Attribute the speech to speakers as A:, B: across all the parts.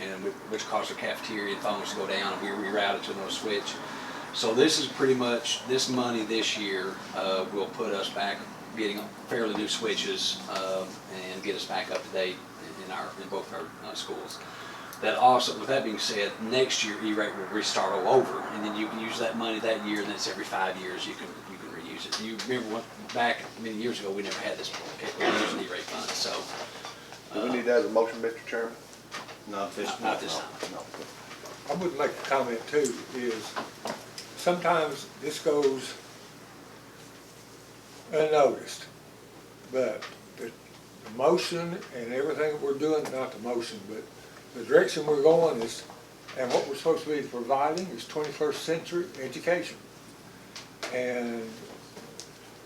A: and whi- which caused the cafeteria and phones to go down, and we rerouted to another switch. So this is pretty much, this money this year uh, will put us back getting fairly new switches uh, and get us back up to date in our, in both our uh, schools. That also, with that being said, next year E-rate will restart all over, and then you can use that money that year, and that's every five years you can, you can reuse it. You remember what, back many years ago, we never had this, we were using E-rate funds, so. uh,
B: Do we need that as a motion, Mr. Chairman?
C: Not this
A: Not this time.
C: No.
D: I would like to comment too, is sometimes this goes unnoticed, but the the motion and everything we're doing, not the motion, but the direction we're going is, and what we're supposed to be providing is twenty-first century education. And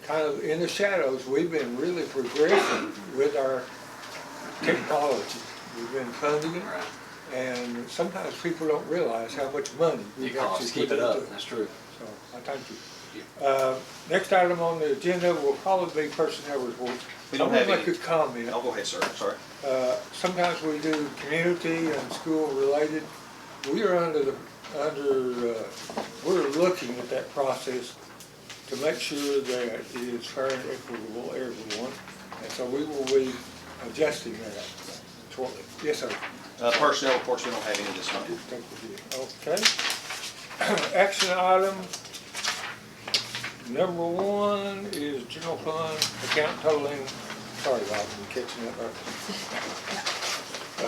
D: kind of in the shadows, we've been really progressing with our technology. We've been funding it.
A: Right.
D: And sometimes people don't realize how much money
A: You
D: we've
A: can
D: actually
A: always keep
D: put
A: it
D: into
A: up,
D: it.
A: that's true.
D: So, I thank you. Uh, Next item on the agenda will probably be personnel report.
C: We don't have
D: I want to
C: any.
D: make a comment.
C: No, go ahead, sir, sorry.
D: Uh, Sometimes we do community and school related. We are under the, under, uh, we're looking at that process to make sure that it is fair and equitable to everyone. And so we will be adjusting that shortly. Yes, sir.
C: Uh, personnel reports, we don't have any this month.
D: Thank you. Okay. Action item number one is general fund account totaling, sorry, Bob, I'm catching up.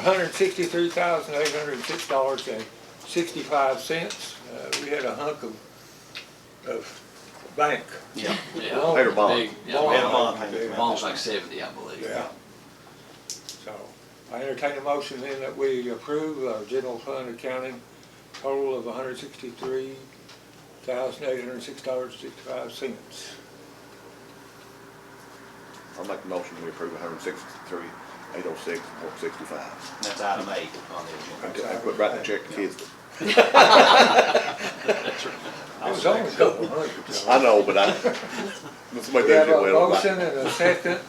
D: hundred and sixty-three thousand, eight hundred and six dollars and sixty-five cents. Uh, We had a hunk of, of bank.
C: Yeah.
A: Yeah.
D: loan.
B: Later, Bob.
A: Big, yeah,
D: Bond.
C: We had a bond
D: Bond.
C: payment.
A: Bond's like seventy, I believe.
D: Yeah. So I entertain a motion then that we approve our general fund accounting total of hundred sixty-three thousand eight hundred six dollars sixty-five cents.
B: I'll make the motion, we approve hundred and sixty-three, eight oh six, one sixty-five.
C: That's item eight on the
B: I
C: agenda.
B: quit writing the check to kids.
D: It was only a couple hundred. so.
B: I know, but I, when somebody
D: We have a
B: does it well.
D: motion and
B: I-
D: a second.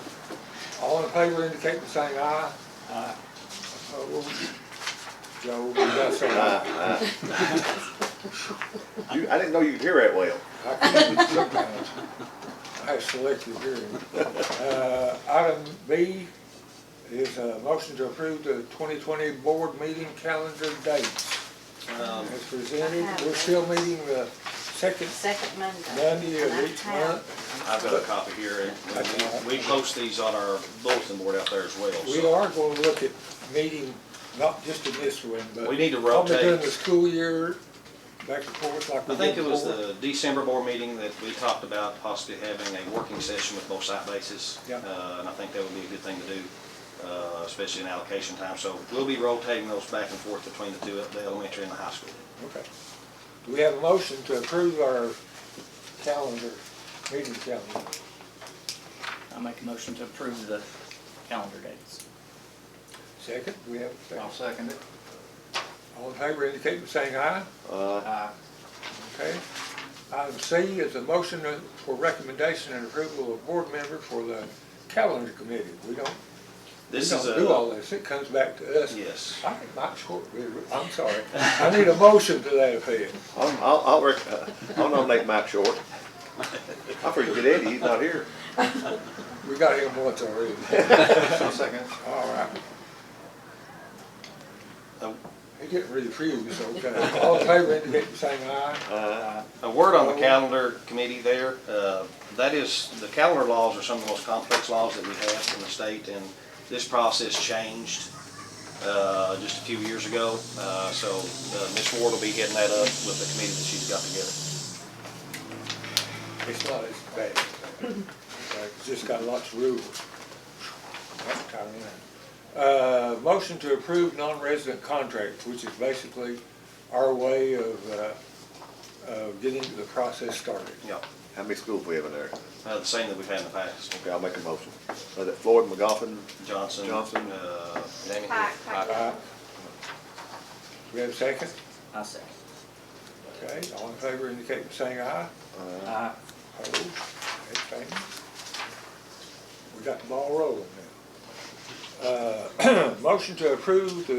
D: All in favor indicate by saying aye. Aye. Joe, we got some.
B: I- I- Ah, You, I didn't know you could hear that well.
D: I can sometimes. I have selective hearing. Uh, Item B is a motion to approve the 2020 board meeting calendar dates.
C: Um,
D: As presented,
E: I have
D: we're
E: it.
D: still meeting the second
E: Second Monday.
D: Monday
E: And I
D: of each
E: have-
D: month.
C: I've got a copy here, and we we post these on our bulletin board out there as well.
D: We
C: so.
D: are going to look at meeting, not just in this one, but.
C: We need to
D: probably During
C: rotate.
D: the school year, back and forth like we
C: I
D: did
C: think it was
D: before.
C: the December board meeting that we talked about possibly having a working session with both site bases.
D: Yeah.
C: Uh, And I think that would be a good thing to do, uh, especially in allocation time. So we'll be rotating those back and forth between the two, the elementary and the high school.
D: Okay. Do we have a motion to approve our calendar, meeting calendar?
F: I make a motion to approve the calendar dates.
D: Second, we have a second.
F: second it.
D: All in favor indicate by saying aye.
B: Uh,
F: Aye.
D: Okay. Item C is a motion for recommendation and approval of board member for the calendar committee. We don't, we
C: This is
D: don't do all
C: a,
D: this. It comes back to us.
C: yes.
D: I think Mike Short, I'm sorry. I need a motion to that effect.
B: I'll, I'll, I'll rec- uh, I'll nominate Mike Short. I forget Eddie, he's not here.
D: We got him once already.
B: second.
D: All right.
C: Oh.
D: He getting refused, okay. All in favor indicate by saying aye.
B: Uh,
C: A word on the calendar committee there, uh, that is, the calendar laws are some of the most complex laws that we have in the state, and this process changed uh, just a few years ago, Uh, so uh, Ms. Ward will be heading that up with the committee that she's got together.
D: It's not as bad. It's just got lots of rules. That's kind of nice. Uh, motion to approve non-resident contracts, which is basically our way of, uh, of getting the process started.
C: Yeah,
B: How many schools we have in there?
C: uh, the same that we've had in the past,
B: Okay, I'll make a motion. Was it Floyd McGoffin?
C: Johnson.
B: Johnson.
C: uh, Danny.
E: Pike, Pike.
D: Alright. We have a second?
F: I second.
D: Okay, all in favor indicate by saying aye.
B: Uh,
F: Aye.
D: Opposed, abstained. We got the ball rolling now. Uh, motion to approve the